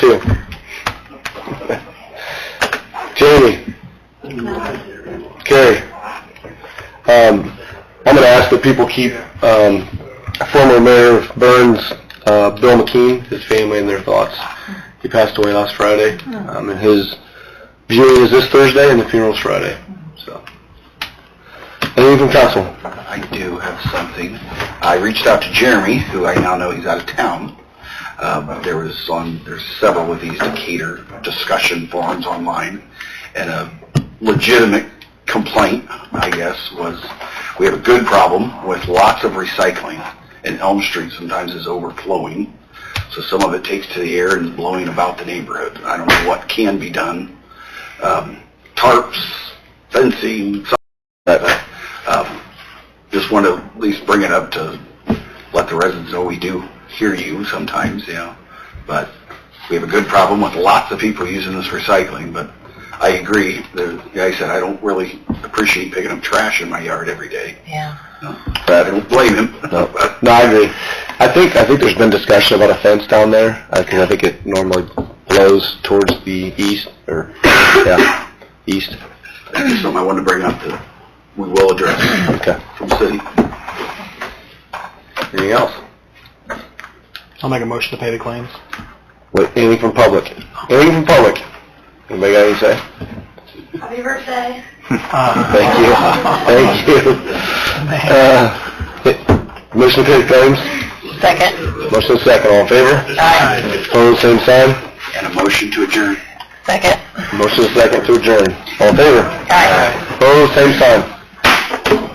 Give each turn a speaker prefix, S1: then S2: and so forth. S1: Katie? Carrie? Um, I'm gonna ask that people keep, um, former Mayor of Burns, uh, Bill McKean, his family in their thoughts. He passed away last Friday, um, and his viewing is this Thursday and the funeral's Friday, so. Anything from council?
S2: I do have something. I reached out to Jeremy, who I now know he's out of town. Um, there was on there's several of these Decatur discussion forums online, and a legitimate complaint, I guess, was we have a good problem with lots of recycling, and Elm Street sometimes is overflowing. So some of it takes to the air and is blowing about the neighborhood. I don't know what can be done. Um, tarps, fencing, some but, um, just want to at least bring it up to let the residents know we do hear you sometimes, you know. But we have a good problem with lots of people using this recycling, but I agree. The guy said, I don't really appreciate picking up trash in my yard every day.
S3: Yeah.
S2: I don't blame him.
S1: No,
S2: But
S1: no, I agree. I think, I think there's been discussion about a fence down there, I think, I think it normally blows towards the east, or, yeah, east,
S2: that's just something I wanted to bring up that we will address
S1: okay.
S2: from the city.
S1: Anything else?
S4: I'll make a motion to pay the claims.
S1: Wait, anything from public? Anything from public? Anybody got anything to say?
S5: Happy birthday.
S1: Thank you, thank you. Uh, Motion to pay the claims,
S3: Second.
S1: motion to second, all in favor?
S3: Aye.
S1: Opposed, same sign,
S2: And a motion to adjourn.
S3: Second.
S1: motion to second to adjourn, all in favor?
S3: Aye.
S1: Opposed, same sign.